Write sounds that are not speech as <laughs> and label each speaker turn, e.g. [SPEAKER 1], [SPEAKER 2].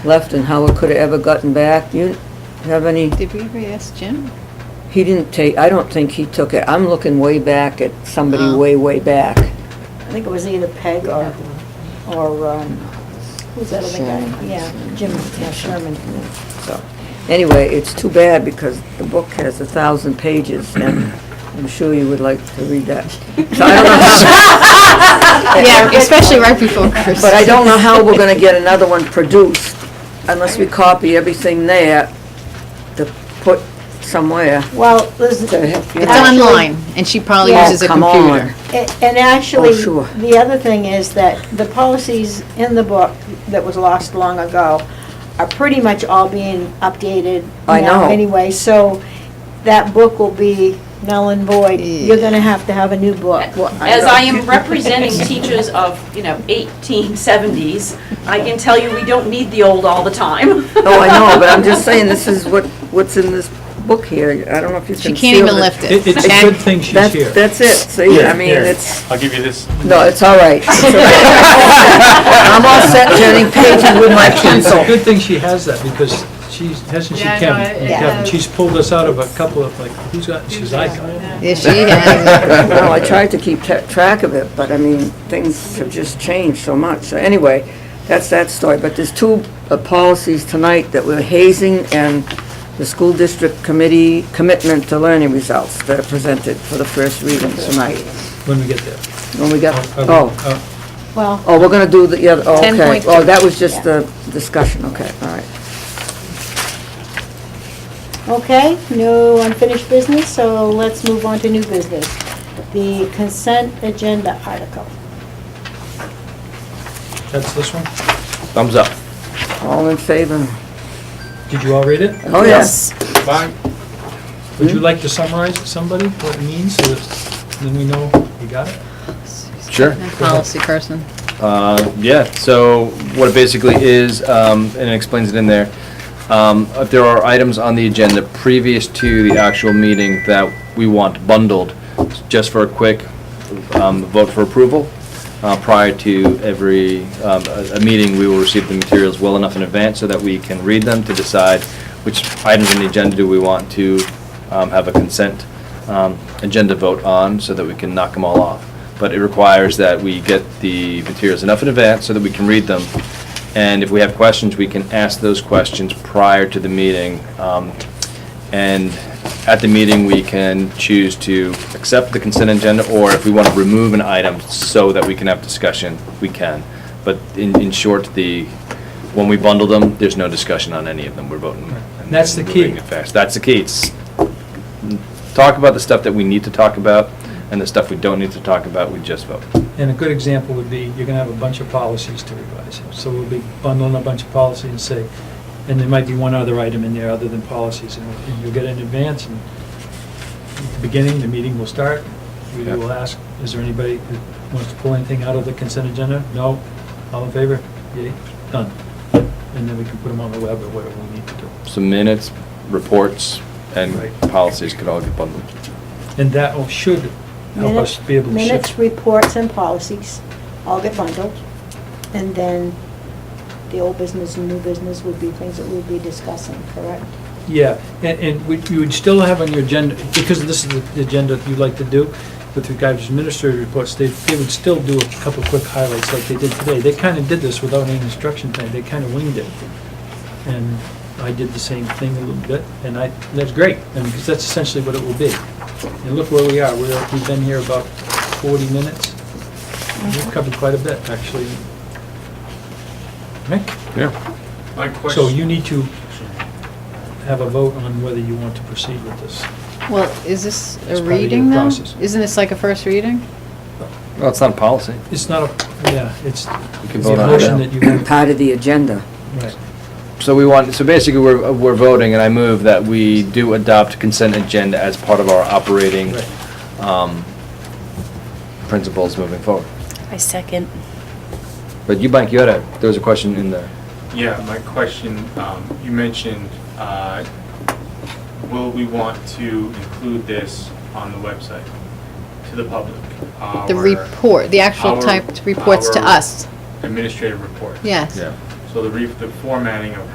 [SPEAKER 1] left and how it could have ever gotten back. You have any,
[SPEAKER 2] Did we ever ask Jim?
[SPEAKER 1] he didn't take, I don't think he took it. I'm looking way back at somebody
[SPEAKER 2] Oh.
[SPEAKER 1] way, way back.
[SPEAKER 3] I think it was either Peg or, or, um, who's that other guy?
[SPEAKER 1] Sherman.
[SPEAKER 3] Yeah, Jim yeah, Sherman.
[SPEAKER 1] So, anyway, it's too bad because the book has a thousand pages and I'm sure you would like to read that. So I don't know how-
[SPEAKER 2] Yeah, especially right before Christmas.
[SPEAKER 1] But I don't know how we're gonna get another one produced unless we copy everything there to put somewhere.
[SPEAKER 3] Well, there's.
[SPEAKER 1] To help you
[SPEAKER 2] It's
[SPEAKER 1] out.
[SPEAKER 3] actually-
[SPEAKER 2] online, and she probably
[SPEAKER 3] Yeah.
[SPEAKER 2] uses a
[SPEAKER 1] Come on.
[SPEAKER 2] computer.
[SPEAKER 3] a- And actually,
[SPEAKER 1] Oh, sure.
[SPEAKER 3] the other thing is that the policies in the book that was lost long ago are pretty much all being updated
[SPEAKER 1] I
[SPEAKER 3] now
[SPEAKER 1] know.
[SPEAKER 3] anyway. So that book will be null and void. You're gonna have to have a new book.
[SPEAKER 4] As I am representing teachers of, you know, 1870s, I can tell you we don't need the old all the time.
[SPEAKER 1] No, Oh, I know, but I'm just saying, this is what, what's in this book here. I don't know if you
[SPEAKER 2] She
[SPEAKER 1] can
[SPEAKER 2] can't
[SPEAKER 1] feel
[SPEAKER 2] even
[SPEAKER 1] it.
[SPEAKER 2] lift it.
[SPEAKER 5] It- It's a
[SPEAKER 2] Jack-
[SPEAKER 5] good thing she's
[SPEAKER 1] That's,
[SPEAKER 5] here.
[SPEAKER 1] that's it, see, I mean,
[SPEAKER 6] Here.
[SPEAKER 1] it's,
[SPEAKER 6] I'll give you this.
[SPEAKER 1] no, it's all right. It's all right. <laughs> I'm all set turning
[SPEAKER 5] <laughs>
[SPEAKER 1] pages with my
[SPEAKER 2] <laughs>
[SPEAKER 5] It's a
[SPEAKER 1] pencil.
[SPEAKER 5] good thing she has that, because she's, hasn't she,
[SPEAKER 7] Yeah, I know,
[SPEAKER 5] Kevin?
[SPEAKER 7] it- it
[SPEAKER 5] Kevin,
[SPEAKER 7] has-
[SPEAKER 5] She's pulled us out of a couple of, like, who's got, she's, I got.
[SPEAKER 2] Yeah, she
[SPEAKER 1] <laughs>
[SPEAKER 2] has.
[SPEAKER 1] No, I tried to keep tra- track of it, but I mean, things have just changed so much. So anyway, that's that story, but there's two uh, policies tonight that were hazing and the school district committee commitment to learning results that are presented for the first reading tonight.
[SPEAKER 5] when we get there.
[SPEAKER 1] When we got,
[SPEAKER 5] Are we-
[SPEAKER 1] oh.
[SPEAKER 5] uh,
[SPEAKER 3] Well,
[SPEAKER 1] Oh, we're gonna do the, yeah, oh, okay.
[SPEAKER 2] 10.2.
[SPEAKER 1] Oh, that was just the discussion, okay, all right.
[SPEAKER 3] Okay, no unfinished business, so let's move on to new business. The consent agenda article.
[SPEAKER 5] That's this one?
[SPEAKER 6] Thumbs up.
[SPEAKER 1] All in favor?
[SPEAKER 5] Did you all read it?
[SPEAKER 1] Oh, yes.
[SPEAKER 6] Bye.
[SPEAKER 5] Would you
[SPEAKER 1] Hmm?
[SPEAKER 5] like to summarize it, somebody, what it means, so that then we know you got it?
[SPEAKER 6] Sure.
[SPEAKER 2] Policy person.
[SPEAKER 6] Uh, Yeah, so what it basically is, um, and it explains it in there, um, if there are items on the agenda previous to the actual meeting that we want bundled, just for a quick um, vote for approval, uh, prior to every, um, a a meeting, we will receive the materials well enough in advance so that we can read them to decide which items on the agenda do we want to um, have a consent um, agenda vote on, so that we can knock them all off but it requires that we get the materials enough in advance so that we can read them. And if we have questions, we can ask those questions prior to the meeting. Um, And at the meeting, we can choose to accept the consent agenda, or if we want to remove an item so that we can have discussion, we can. But in, in short, the, when we bundle them, there's no discussion on any of them, we're voting.
[SPEAKER 5] And that's the key.
[SPEAKER 6] moving it fast. That's the key. It's talk about the stuff that we need to talk about, and the stuff we don't need to talk about, we just vote.
[SPEAKER 5] And a good example would be, you're gonna have a bunch of policies to revise. So we'll be bundling a bunch of policies and say, and there might be one other item in there other than policies, and and you'll get it in advance, and at the beginning, the meeting will start. We
[SPEAKER 6] Yeah.
[SPEAKER 5] will ask, is there anybody that wants to pull anything out of the consent agenda? No? All in favor? Yay, done. And then we can put them on the web or whatever we need to do.
[SPEAKER 6] So minutes, reports, and
[SPEAKER 5] Right.
[SPEAKER 6] policies could all get bundled.
[SPEAKER 5] And that will- should help us be able to shift.
[SPEAKER 3] Minutes, reports, and policies all get bundled. And then the old business and new business would be things that we'll be discussing, correct?
[SPEAKER 5] Yeah, and, and we- you would still have on your agenda, because this is the- the agenda you like to do, with regard to administrative reports, they, they would still do a couple quick highlights like they did today. They kind of did this without any instruction thing, they kind of winged it. And I did the same thing a little bit, and I, that's great, and because that's essentially what it will be. And look where we are, we're, we've been here about forty minutes. We've covered quite a bit, actually. Right?
[SPEAKER 6] Yeah.
[SPEAKER 8] My
[SPEAKER 5] So
[SPEAKER 8] question,
[SPEAKER 5] you need to have a vote on whether you want to proceed with this.
[SPEAKER 2] Well, is this
[SPEAKER 5] It's
[SPEAKER 2] a
[SPEAKER 5] part of your
[SPEAKER 2] reading though?
[SPEAKER 5] process.
[SPEAKER 2] Isn't this like a first reading?
[SPEAKER 6] Well, it's not a policy.
[SPEAKER 5] It's not a, yeah, it's
[SPEAKER 6] You
[SPEAKER 5] the
[SPEAKER 6] can vote on it
[SPEAKER 5] motion
[SPEAKER 6] now.
[SPEAKER 5] that you have.
[SPEAKER 1] Part of the agenda.
[SPEAKER 5] Right.
[SPEAKER 6] So we want, so basically, we're, we're voting, and I move that we do adopt consent agenda as part of our operating
[SPEAKER 5] Right.
[SPEAKER 6] um, principles moving forward.
[SPEAKER 9] I second.
[SPEAKER 6] But you, Mike, you had a, there was a question in there.
[SPEAKER 8] yeah, my question, um, you mentioned, uh, will we want to include this on the website to the public?
[SPEAKER 2] The
[SPEAKER 8] Our
[SPEAKER 2] report, the actual
[SPEAKER 8] our-
[SPEAKER 2] typed reports to
[SPEAKER 8] our
[SPEAKER 2] us,
[SPEAKER 8] Administrative report.
[SPEAKER 2] yes.
[SPEAKER 8] So the re, the formatting of